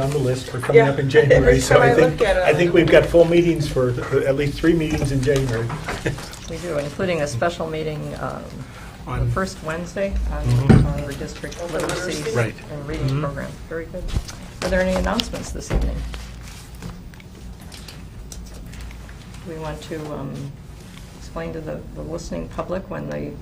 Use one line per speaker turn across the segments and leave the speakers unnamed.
on the list for coming up in
Yeah, every
January, so
time
I
I
think,
look at it,
I think
I'm-
we've got full meetings for, at least three meetings in January.
We do, including a special meeting um, the
On- Mhm.
first Wednesday on on the district literacy
Right. Mhm.
and reading program. Very good. Are there any announcements this evening? We want to um, explain to the the listening public when the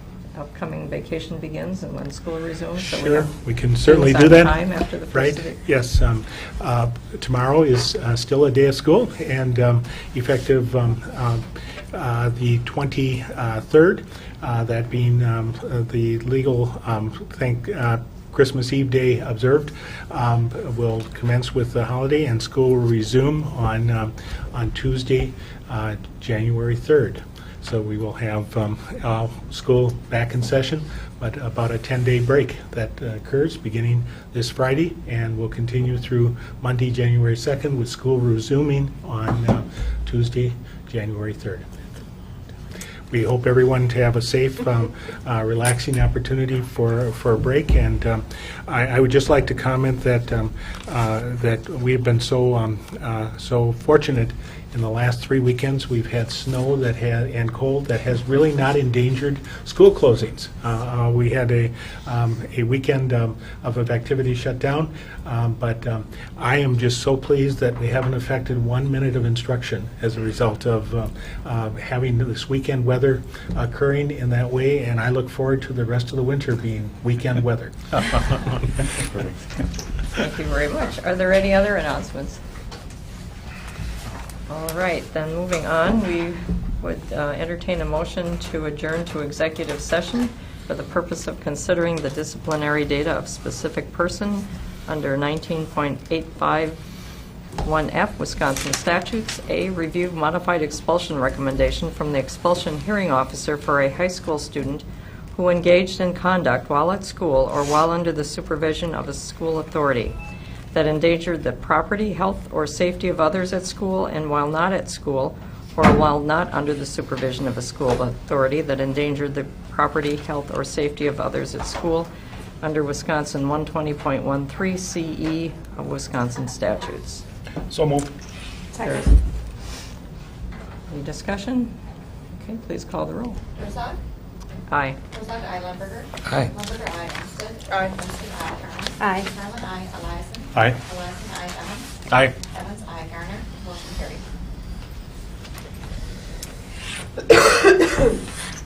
upcoming vacation begins and when school resumes. so we
Sure,
have
we can certainly
things
do that.
on time after the first of the-
Right, yes. um, uh, Tomorrow is uh, still a day of school, and um, effective um, um, uh, the 23rd, uh, that being um, uh, the legal, um, thank, uh, Christmas Eve day observed, um, will commence with the holiday, and school will resume on, um, on Tuesday, uh, January 3rd. So we will have um, uh, school back in session, but about a 10-day break that uh, occurs beginning this Friday and will continue through Monday, January 2nd, with school resuming on uh, Tuesday, January 3rd. We hope everyone to have a safe, um, uh, relaxing opportunity for, for a break. And um, I, I would just like to comment that, um, uh, that we have been so, um, uh, so fortunate in the last three weekends. We've had snow that had, and cold that has really not endangered school closings. Uh, uh, We had a, um, a weekend um, of of activity shut down. Um, But um, I am just so pleased that we haven't affected one minute of instruction as a result of um, um, having this weekend weather occurring in that way, and I look forward to the rest of the winter being weekend weather.
Thank you very much. Are there any other announcements? All right, then moving on, we would uh, entertain a motion to adjourn to executive session for the purpose of considering the disciplinary data of specific person under 19.851F Wisconsin statutes. A, review modified expulsion recommendation from the expulsion hearing officer for a high school student who engaged in conduct while at school or while under the supervision of a school authority that endangered the property, health, or safety of others at school and while not at school, or while not under the supervision of a school authority that endangered the property, health, or safety of others at school under Wisconsin 120.13 CE E of Wisconsin statutes.
So moved.
Second.
Any discussion? Okay, please call the roll.
Herzog?
Aye.
Herzog, I. Lumberger?
Aye.
Lumberger, I. Olmstead?
Aye.
Olmstead, I. Garner?
Aye.
Garland, I. Eliason?
Aye.
Eliason, I. Evans?
Aye.
Evans, I. Garner? Motion carried.